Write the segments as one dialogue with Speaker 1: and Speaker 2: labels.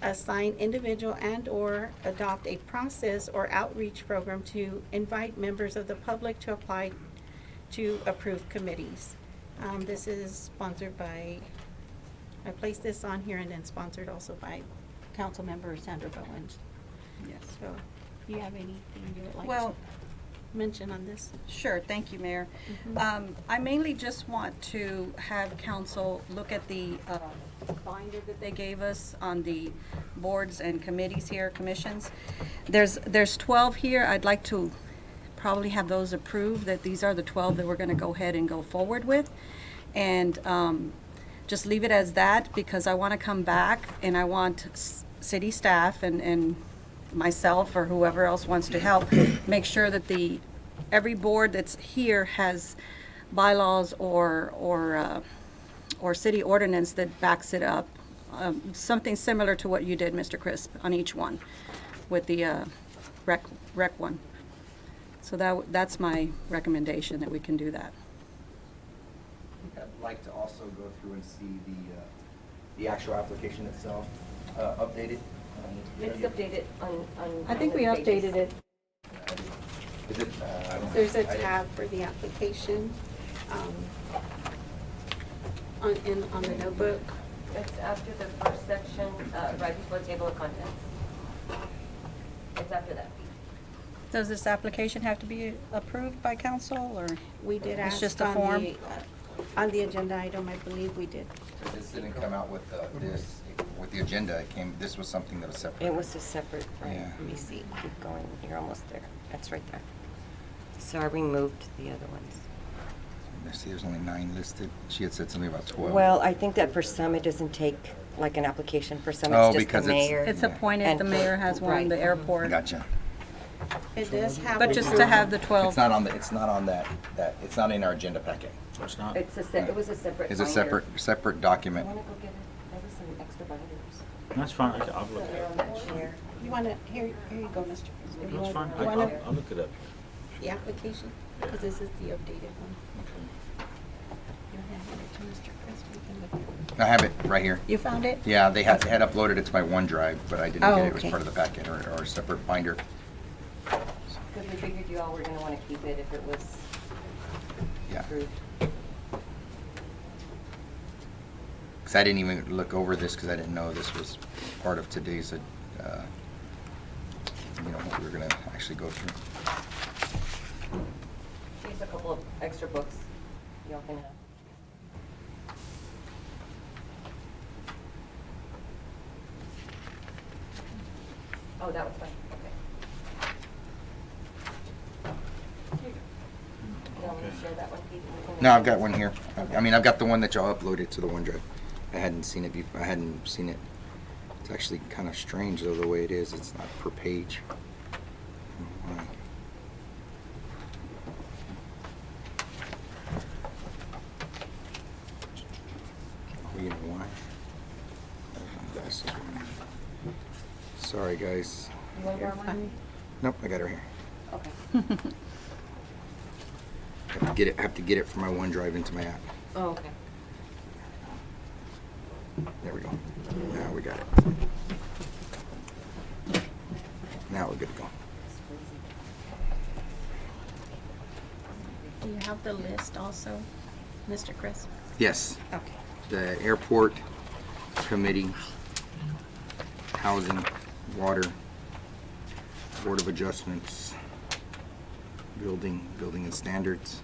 Speaker 1: assign individual and/or adopt a process or outreach program to invite members of the public to apply to approved committees. Um, this is sponsored by, I placed this on here and then sponsored also by Councilmember Sandra Bowen.
Speaker 2: Yes.
Speaker 1: So, do you have anything you would like to
Speaker 2: Well-
Speaker 1: mention on this?
Speaker 2: Sure, thank you, Mayor.
Speaker 1: Mhm.
Speaker 2: Um, I mainly just want to have council look at the uh, binder that they gave us on the boards and committees here, commissions. There's, there's 12 here. I'd like to probably have those approved, that these are the 12 that we're going to go ahead and go forward with. And um, just leave it as that because I want to come back and I want s- city staff and, and myself or whoever else wants to help, make sure that the, every board that's here has bylaws or, or, uh, or city ordinance that backs it up. Um, Something similar to what you did, Mr. Crisp, on each one with the uh, rec, rec one. So that, w- that's my recommendation that we can do that.
Speaker 3: I'd like to also go through and see the, uh, the actual application itself, uh, updated. Um,
Speaker 4: It's updated on, on.
Speaker 2: I think we updated it.
Speaker 3: Is it, uh?
Speaker 1: There's a
Speaker 3: I-
Speaker 1: tab for the application, um, on, in, on the notebook.
Speaker 4: It's after the first section, uh, right before table of contents. It's after that.
Speaker 2: Does this application have to be approved by council or?
Speaker 1: We did
Speaker 2: It's
Speaker 1: ask
Speaker 2: just a
Speaker 1: on
Speaker 2: form?
Speaker 1: the, uh, on the agenda item, I believe we did.
Speaker 3: So This didn't come out with, uh, this, with the agenda, it came, this was something that was separate.
Speaker 4: It was a separate, right,
Speaker 3: Yeah.
Speaker 4: let me see, keep going, you're almost there, that's right there. So I removed the other ones.
Speaker 3: I See, there's only nine listed. She had said something about twelve.
Speaker 4: Well, I think that for some, it doesn't take like an application, for some,
Speaker 3: Oh,
Speaker 4: it's just
Speaker 3: because
Speaker 4: the
Speaker 3: it's-
Speaker 4: mayor.
Speaker 2: It's appointed,
Speaker 4: And
Speaker 2: the
Speaker 4: for-
Speaker 2: mayor has one,
Speaker 4: right.
Speaker 2: the airport.
Speaker 3: Gotcha.
Speaker 1: It does have.
Speaker 2: But just to have the
Speaker 3: It's
Speaker 2: 12,
Speaker 3: not on the, it's not on that, that, it's not in our agenda packet.
Speaker 5: It's not.
Speaker 4: It's a, se- it was a separate.
Speaker 3: It's a
Speaker 4: binder.
Speaker 3: separate, separate
Speaker 4: I
Speaker 3: document.
Speaker 4: wanna go get it, there was some extra binders.
Speaker 5: That's fine. I- I'll look it up.
Speaker 4: Chair.
Speaker 1: You wanna, here, here you go, Mr. President. You want-
Speaker 5: That's fine. I-
Speaker 1: You
Speaker 5: I'll,
Speaker 1: wanna,
Speaker 5: I'll look it up.
Speaker 1: the application, because this is the updated one. You wanna hand it to Mr. Crisp, we can look at it.
Speaker 3: I have it right here.
Speaker 1: You found it?
Speaker 3: Yeah, they had, had uploaded it to my OneDrive, but I didn't
Speaker 1: Oh,
Speaker 3: get it. It was
Speaker 1: okay.
Speaker 3: part of the packet or, or a separate binder.
Speaker 4: Because we figured you all were gonna wanna keep it if it was
Speaker 3: Yeah.
Speaker 4: approved.
Speaker 3: Because I didn't even look over this because I didn't know this was part of today's, uh, you know, what we were going to actually go through.
Speaker 4: Here's a couple of extra books y'all can have. Oh, that was fine, okay. You want me to
Speaker 5: Okay.
Speaker 4: share that one, Pete? We can-
Speaker 3: No, I've got one here. I I mean, I've got the one that y'all uploaded to the OneDrive. I hadn't seen it before. I hadn't seen it. It's actually kind of strange though, the way it is. It's not per page. I don't know why. Oh, you know why? This is one. Sorry, guys.
Speaker 4: You want more one?
Speaker 3: Nope, I got her here.
Speaker 4: Okay.
Speaker 3: I have to get it, I have to get it from my OneDrive into my app.
Speaker 4: Oh, okay.
Speaker 3: There we go. Now we got it. Now we're good to go.
Speaker 1: Do you have the list also, Mr. Crisp?
Speaker 3: Yes,
Speaker 1: Okay.
Speaker 3: the airport committee, housing, water, board of adjustments, building, building and standards,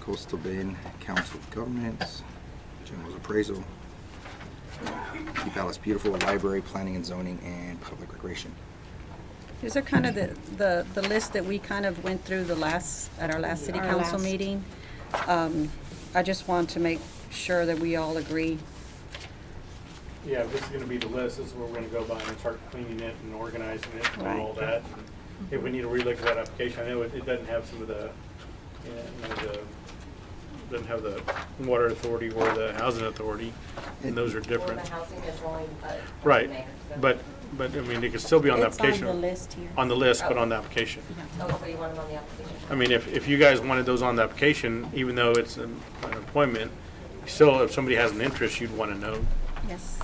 Speaker 3: coastal bend, council of governments, general's appraisal, keep Alice beautiful, library, planning and zoning, and public recreation.
Speaker 2: these are kind of the, the, the list that we kind of went through the last, at our last city
Speaker 1: Our
Speaker 2: council
Speaker 1: last.
Speaker 2: meeting. Um, I just want to make sure that we all agree.
Speaker 6: Yeah, this is gonna be the list, this is where we're gonna go by and start cleaning it and organizing it and all
Speaker 2: Right.
Speaker 6: that. And If we need to relook at that application, I know it, it doesn't have some of the, you know, the, doesn't have the water authority or the housing authority, and those are
Speaker 4: Well,
Speaker 6: different.
Speaker 4: the housing is only, uh,
Speaker 6: Right,
Speaker 4: mayor, so-
Speaker 6: but, but, I mean, it could still be on the
Speaker 1: It's on the
Speaker 6: application,
Speaker 1: list here.
Speaker 6: on the list, but on the application.
Speaker 4: Oh, so you want them on the application?
Speaker 6: I mean, if, if you guys wanted those on the application, even though it's an an appointment, still, if somebody has an interest, you'd wanna know.
Speaker 1: Yes.